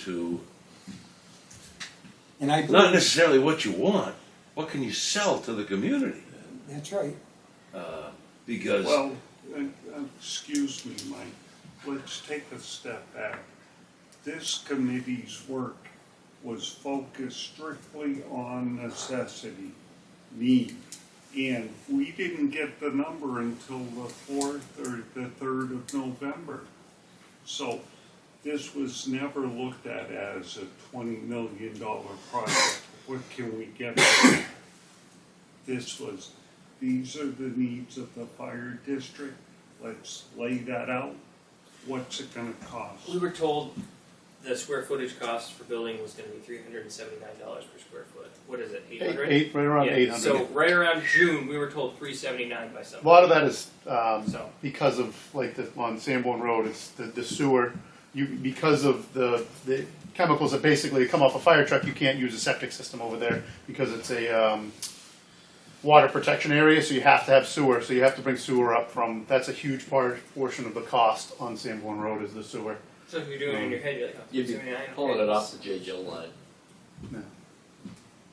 to And I not believe, necessarily what you want, what can you sell to the community? that's right. Uh, because Well, uh, uh, excuse me, Mike, let's take a step back. This committee's work was focused strictly on necessity, need. And we didn't get the number until the fourth or the third of November. So this was never looked at as a twenty million dollar project. What can we get? for it? This was these are the needs of the fire district, let's lay that out, what's it gonna cost? We were told the square footage cost for building was going to be three hundred and seventy nine dollars per square foot. What is it? Eight hundred. Eight, right around eight So hundred. right around June, we were told three seventy nine by A somebody. lot of that is um, So because of like the, on Sanborn Road, it's the, the sewer. You because of the the chemicals that basically come off a fire truck, you can't use a septic system over there because it's a um, water protection area. So you have to have sewer. So you have to bring sewer up from. That's a huge part portion of the cost on Sanborn Road is the sewer. so if you're doing it in your head, you're like, oh, You'd be 379, Pulling okay. it off the J. Jill line. No.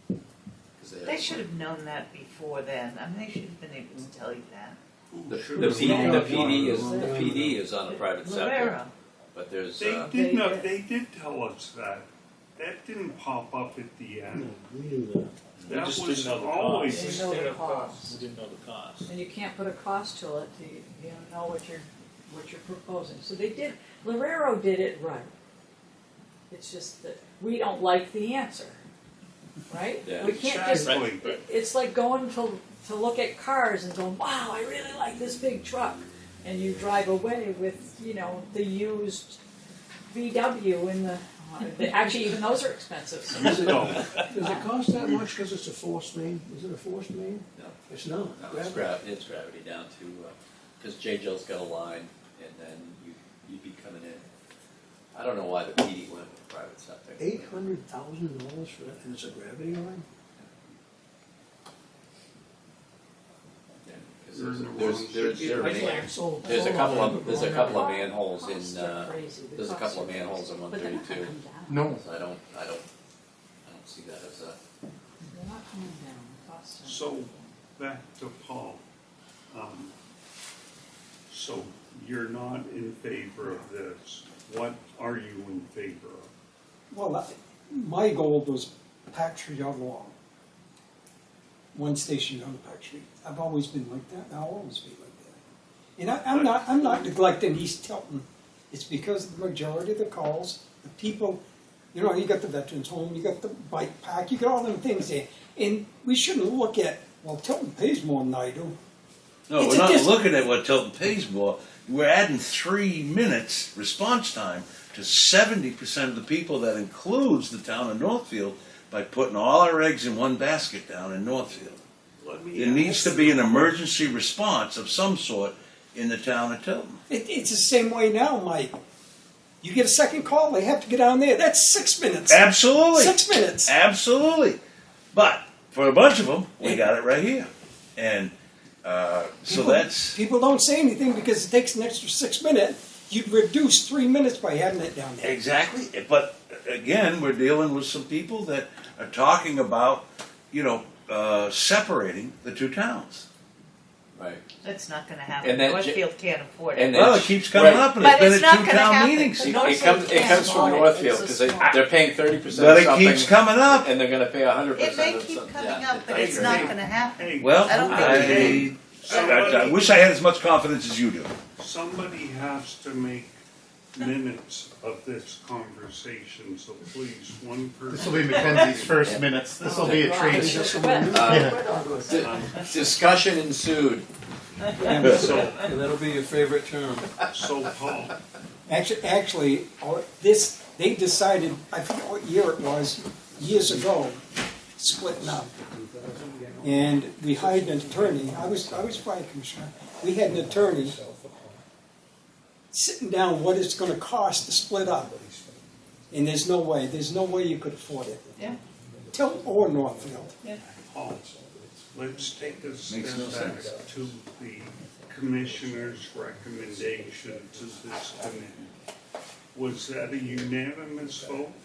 'Cause they- They should have known that before then. I mean, they should have been able to tell you that. The, the, P, the PD is the PD is on a private sector, Rivera. but there's They uh, did They not, did. they did tell us that, that didn't pop up at the end. We knew that. We That just was didn't know the always- They It's know still the a cost. We didn't know the cost. And you can't put a cost to it, to, you don't know what you're, what you're proposing. So they did, Lorero did it right. It's just that we don't like the answer, right? Yeah. We can't just, Exactly. it- it's like going to, to look at cars and going, wow, I really like this big truck. And you drive away with, you know, the used VW and the, actually even those are expensive, so. Does it, No. does it cost that much because it's a forced main? Is it a forced main? No. It's not. no, it's, Grab- gra- it's gravity down to because J. Jill's got a line, and then you you'd be coming in. I don't know why the PD went with the private sector. Eight hundred thousand dollars for that, and it's a gravity line? Yeah, 'cause You're there's in the wrong there's there's, city. there are Right man- there. So. there's a couple of there's a couple of Costs manholes in are uh, crazy. The there's a costs couple of are crazy. manholes in But they're not 132. coming down. No. So I don't I don't I don't see that as a They're not coming down. The costs are- So, back to Paul. Um, So, you're not in favor of this, what are you in favor of? Well, I- my goal was Pack Street all along. One station down to Pack Street. I've always been like that, and I'll always be like that. And I, I'm not, I'm not neglecting East Tilton. It's because the majority of the calls, the people, you know, you got the Veterans Home, you got the bike pack, you got all them things there. And we shouldn't look at, well, Tilton pays more than I do. no, It's we're a not dis- looking at what Tilton pays for. We're adding three minutes response time to seventy percent of the people. That includes the town of Northfield by putting all our eggs in one basket down in Northfield. Let me There needs ask to be an emergency response of some sort in the town of Tilton. It, it's the same way now, Mike. You get a second call, they have to get down there. That's six minutes. Absolutely. Six minutes. Absolutely. But for a bunch of them, we got it right here. And uh, so People- that's, People don't say anything because it takes an extra six minutes. You'd reduce three minutes by having it down there. exactly. But again, we're dealing with some people that are talking about, you know, uh, separating the two towns. right. That's not gonna happen. And that ju- Northfield can't afford And it. Well, it that's- keeps coming right. up, and it's But it's been at not two gonna town happen. meetings. But But no- It comes, it comes from It's a Northfield, small- because they, they're paying thirty percent of it something. keeps coming up. And they're gonna pay a hundred It percent may of something. keep coming Yeah, up, but it's that's not right. gonna happen. Hey, Well, I don't I, think I, I wish I had as much confidence as you do. Somebody has to make minutes of this conversation, so please, one This will person. be Mackenzie's first minutes. This will be a treat. Is that But- someone Uh, new? Um, Discussion ensued. So, And that'll be your favorite term. so Paul, Actually, actually, all- this they decided. I forget what year it was, years ago, splitting up. And we hired an attorney. I was I was fire commissioner. We had an attorney sitting down what it's going to cost to split up. And there's no way. There's no way you could afford it. Yeah. Tilton or Northfield. Paul, let's take a step Makes no back to the commissioner's recommendation to this committee. Was that a unanimous vote?